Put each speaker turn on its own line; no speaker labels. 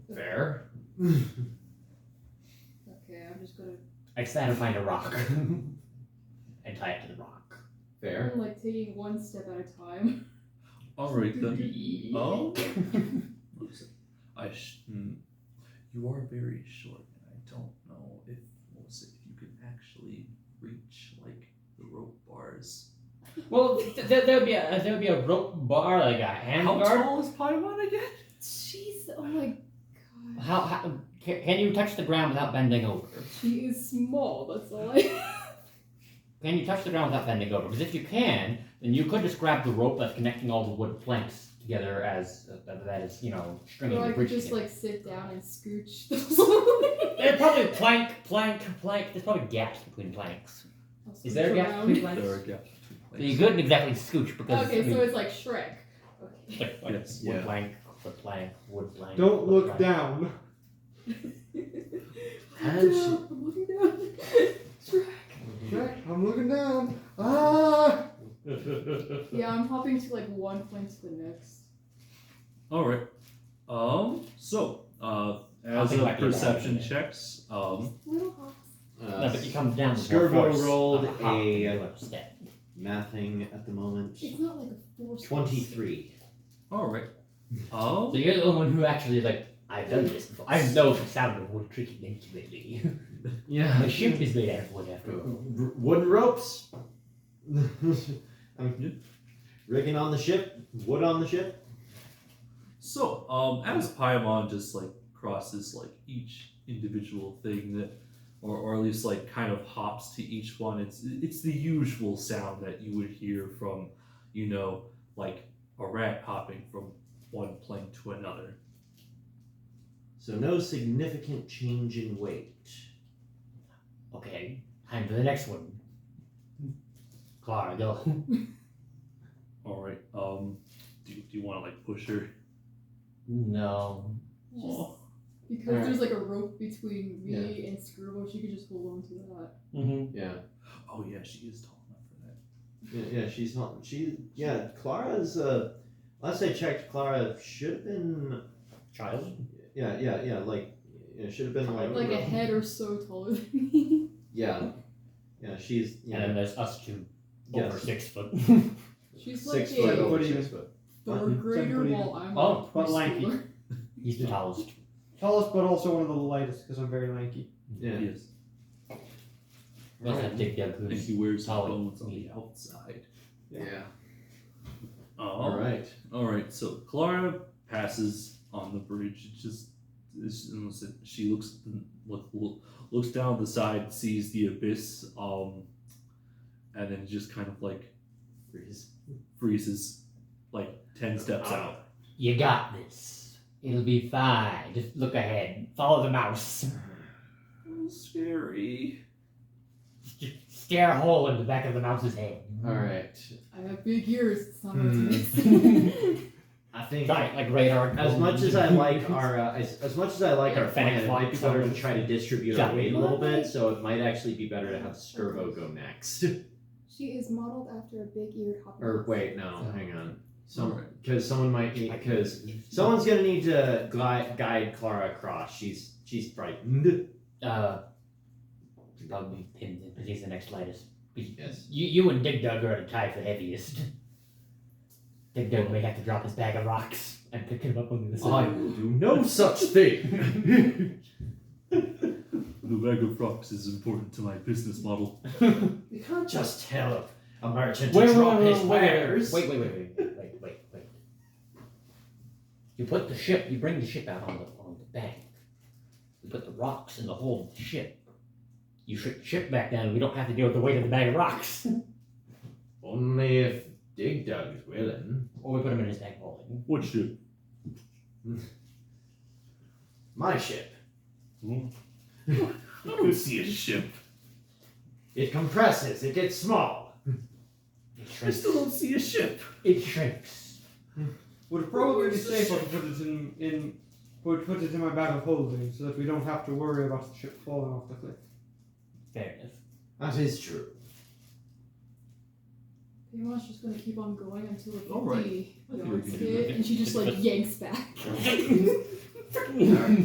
fair.
Okay, I'm just gonna.
I just had to find a rock and tie it to the rock. Fair.
I'm like taking one step at a time.
Alright then.
E
Oh.
Listen,
I sh- hmm. You are very short, and I don't know if Melissa, if you can actually reach like the rope bars.
well, th- th- there would be a there would be a rope bar like a hand
How
guard.
tall is Paimon again?
She's oh my god.
How, how can, can you touch the ground without bending over?
She is small. That's all I.
Can you touch the ground without bending over? Because if you can, then you could just grab the rope that's connecting all the wood planks together as uh, that- that is you know stringing
or I
the
could
bridge.
just
together.
like sit down and scooch.
There's probably plank, plank, plank. There's probably gaps between planks. Is there a gap
Around.
between planks?
There are gaps between
So you
planks.
couldn't exactly scooch because I
Okay,
mean,
so it's like Shrek. Okay.
like, like
Yes,
wood
yeah.
plank, wood plank, wood plank.
Don't
wood
look
plank.
down.
And she-
Down, I'm looking down. Shrek.
Jack, I'm looking down. Ah!
Yeah, I'm hopping to like one point to the next.
Alright. Um so uh
I'll
as
think
a
about it.
perception checks, um
Little hops.
No, but you come down. with
Skirbo
more force
rolled
of hop
a-
than you have step.
Mathing at the moment.
It's not like a force.
Twenty-three.
alright.
So
Um
you're the only one who actually like. I've done this before. I know the sound of wood creaking intimately.
Yeah.
My ship is made out of wood after all.
wooden ropes. I'm rigging on the ship. Wood on the ship.
So, um, as Paimon just like crosses like each individual thing that, or, or at least like kind of hops to each one, it's it's the usual sound that you would hear from, you know, like a rat hopping from one plank to another.
So no significant change in weight.
Okay, time for the next one. Clara, go.
All right. Um, do, do you want to like push her?
No.
Just
Aw.
because
Alright.
there's like a rope between me and Skirbo, she could just hold on to that.
Mm-hmm.
Yeah.
Oh yeah, she is tall enough for that.
Yeah, yeah she's not. She. Yeah, Clara's. Uh, last I checked, Clara should have been.
Child.
Yeah, yeah, yeah. Like, yeah, should have been like.
Like a head or so taller than me.
Yeah. Yeah, she's. Yeah.
And then there's us two over
Yes.
six foot.
She's like
Six
a
foot over
What do you-
six foot.
third grader
Somebody-
while I'm
Oh,
like
but lanky.
preschooler.
He's the tallest.
Tallest, but also one of the lightest because I'm very lanky.
Yeah.
Yes.
Must have Dig Dug
And
who's
he wears
Solid.
bones on the outside.
Yeah.
Um,
All right.
All right, so Clara passes on the bridge. It just it's, almost like she looks look, look- looks down the side, sees the abyss, um, and then just kind of like
Freeze.
freezes, like ten steps out.
You got this. It'll be fine. Just look ahead. Follow the mouse.
scary.
Just stare a hole in the back of the mouse's head.
All right.
I have big ears. It's not what
Hmm.
it's-
I think
Giant like radar.
as much as I like our uh, as, as much as I like our plan,
Fennec
it might be
Fox.
better to try to distribute our
Yeah.
weight a little bit. So it might actually be better to have Skirbo go next.
She is modeled after a big eared hopper.
or wait, no, hang on. Some
Alright.
because someone might need because someone's gonna need to guide, guide Clara across. She's she's frightened.
Uh, probably pinned because he's the next lightest.
Yes.
You, you and Dig Dug are tied for heaviest. Dig Dug may have to drop his bag of rocks and pick him up on the
Oh, I
side.
will do no such thing.
The bag of rocks is important to my business model.
You can't just tell a merchant
Wait,
to
wait,
drop
wait,
his
wait,
wares.
Wait, wait, wait, wait, wait, wait, wait, wait. You put the ship, you bring the ship out on the, on the bank. You put the rocks in the hold of the ship. You ship the ship back down, and we don't have to deal with the weight of the bag of rocks.
Only if Dig Dug is willing.
Or we put him in his bag of holding.
What ship?
My ship.
I don't see a ship.
It compresses. It gets small.
It
I
shrinks.
still don't see a ship.
It shrinks.
Would probably be safer to put it in in would put it in my bag of holding so that we don't have to worry about the ship falling off the cliff.
Fair enough.
That is true.
Paymon's just gonna keep on going until it
Alright.
fifty
I think we
yards
can do
hit,
that.
and she just like yanks back.